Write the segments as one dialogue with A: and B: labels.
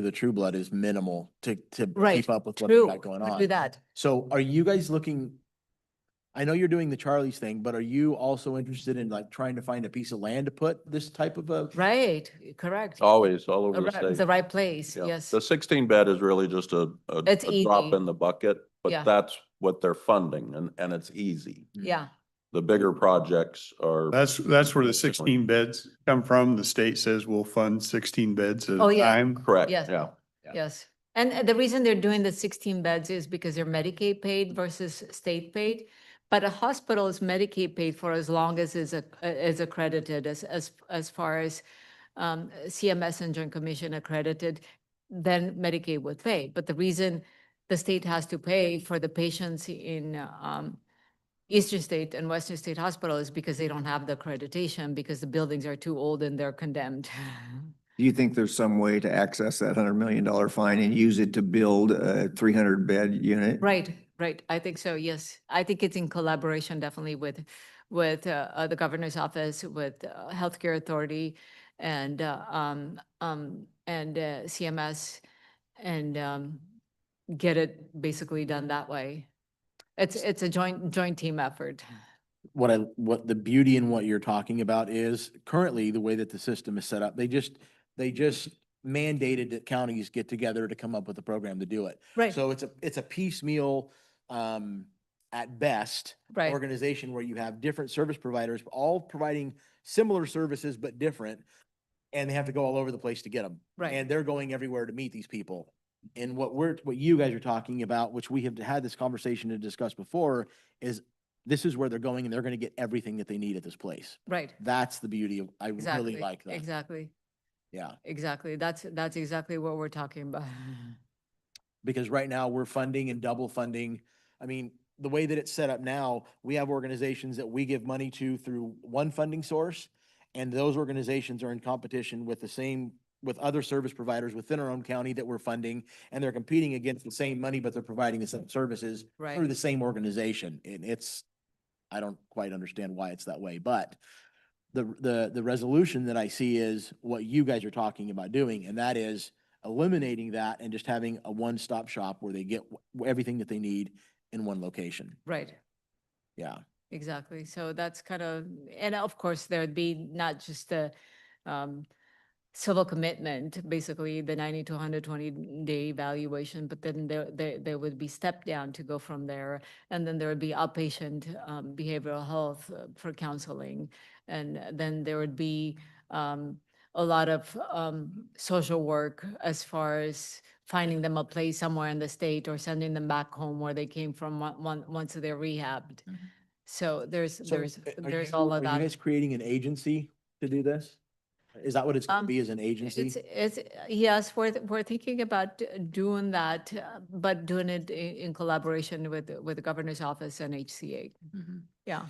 A: the True Blood is minimal to, to
B: Right,
A: keep up with what they
B: True,
A: got going
B: would do
A: on.
B: that.
A: So are you guys looking? I know you're doing the Charlie's thing, but are you also interested in like trying to find a piece of land to put this type of a?
B: Right, correct.
C: Always, all over
B: Arri-
C: the
B: The
C: state.
B: right place,
C: Yeah.
B: yes.
C: The sixteen bed is really just a, a
B: It's
C: a drop
B: easy.
C: in the bucket,
B: Yeah.
C: but that's what they're funding and, and it's easy.
B: Yeah,
C: The bigger projects are.
D: That's, that's where the
C: Different.
D: sixteen beds come from. The state says we'll fund sixteen beds at
B: Oh,
D: a
B: yeah.
D: time.
C: Correct,
B: Yes.
C: yeah.
A: Yeah.
B: yes. And uh, the reason they're doing the sixteen beds is because they're Medicaid paid versus state paid. But a hospital is Medicaid paid for as long as is, a- uh, is accredited as, as, as far as um, CMS and Joint Commission accredited, then Medicaid would pay. But the reason the state has to pay for the patients in uh, um, Eastern State and Western State Hospital is because they don't have the accreditation because the buildings are too old and they're condemned.
E: Do you think there's some way to access that hundred million dollar fine and use it to build a three hundred bed unit?
B: Right, right. I think so, yes. I think it's in collaboration definitely with, with uh, uh, the governor's office, with uh, Healthcare Authority and, uh, um, um, and uh, CMS and um, get it basically done that way. It's, it's a joint, joint team effort.
A: what I, what the beauty in what you're talking about is currently the way that the system is set up, they just, they just mandated that counties get together to come up with a program to do it.
B: Right,
A: So it's a, it's a piecemeal, um, at best,
B: right.
A: organization where you have different service providers, all providing similar services but different. And they have to go all over the place to get them.
B: Right.
A: And they're going everywhere to meet these people. And what we're, what you guys are talking about, which we have had this conversation to discuss before, is this is where they're going and they're gonna get everything that they need at this place.
B: Right,
A: That's the beauty of, I
B: exactly.
A: really like that.
B: Exactly,
A: Yeah,
B: exactly. That's, that's exactly what we're talking about.
A: because right now we're funding and double funding. I mean, the way that it's set up now, we have organizations that we give money to through one funding source. And those organizations are in competition with the same, with other service providers within our own county that we're funding. And they're competing against the same money, but they're providing the same services through
B: Right,
A: the same organization. And it's, I don't quite understand why it's that way, but the, the, the resolution that I see is what you guys are talking about doing, and that is eliminating that and just having a one-stop shop where they get wh- everything that they need in one location.
B: right.
A: Yeah.
B: Exactly. So that's kind of, and of course, there'd be not just the um, civil commitment, basically the ninety to hundred twenty day evaluation, but then there, there, there would be step down to go from there. And then there would be outpatient um, behavioral health uh, for counseling. And then there would be um, a lot of um, social work as far as finding them a place somewhere in the state or sending them back home where they came from on- on- once they're rehabbed. So there's,
A: Mm-hmm. So,
B: there's,
A: uh, are
B: there's
A: you-
B: all of
A: Are you
B: that.
A: guys creating an agency to do this? Is that what it's
B: Um,
A: gonna be, as an
B: It's,
A: agency?
B: it's, yes, we're, th- we're thinking about d- doing that, uh, but doing it i- in collaboration with, with the governor's office and HCA. Yeah,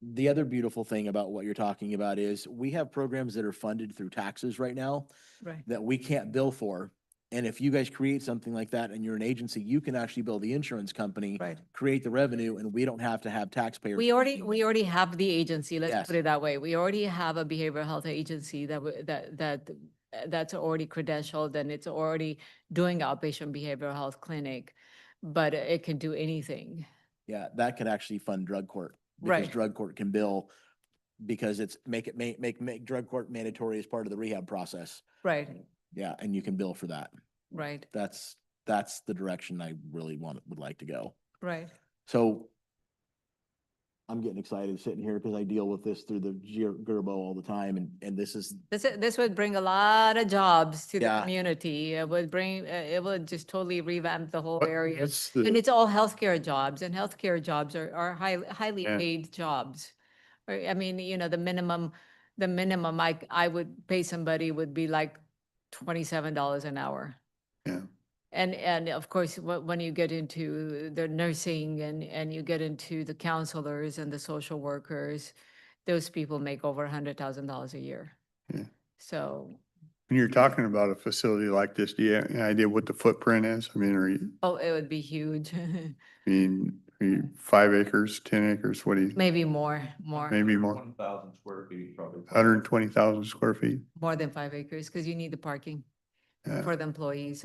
A: The other beautiful thing about what you're talking about is we have programs that are funded through taxes right now.
B: right,
A: that we can't bill for. And if you guys create something like that and you're an agency, you can actually bill the insurance company,
B: right.
A: create the revenue, and we don't have to have taxpayers.
B: We already, we already have the agency,
A: Yes.
B: let's put it that way. We already have a behavioral health agency that, w- that, that, uh, that's already credentialed and it's already doing outpatient behavioral health clinic, but it can do anything.
A: Yeah, that could actually fund drug court. because
B: Right.
A: Drug court can bill because it's make it, make, make, make drug court mandatory as part of the rehab process.
B: Right,
A: Yeah, and you can bill for that.
B: right,
A: That's, that's the direction I really want, would like to go.
B: right.
A: So I'm getting excited sitting here because I deal with this through the Ger- Gerbo all the time and, and this is
B: This, i- this would bring a lot of jobs to the
A: Yeah.
B: community. It would bring, uh, it would just totally revamp the whole
D: But
B: area.
D: that's the-
B: And it's all healthcare jobs and healthcare jobs are, are highly, highly
D: Yeah.
B: paid jobs. Or, I mean, you know, the minimum, the minimum I, I would pay somebody would be like twenty-seven dollars an hour.
D: Yeah.
B: And, and of course, wh- when you get into the nursing and, and you get into the counselors and the social workers, those people make over a hundred thousand dollars a year.
D: Yeah.
B: So,
D: When you're talking about a facility like this, do you have any idea what the footprint is? I mean, are you,
B: oh, it would be huge,
D: I mean, are you five acres, ten acres, what do you,
B: maybe more, more.
D: maybe more,
C: One thousand square feet probably.
D: hundred and twenty thousand square feet?
B: More than five acres, because you need the parking.
D: Yeah.
B: for the employees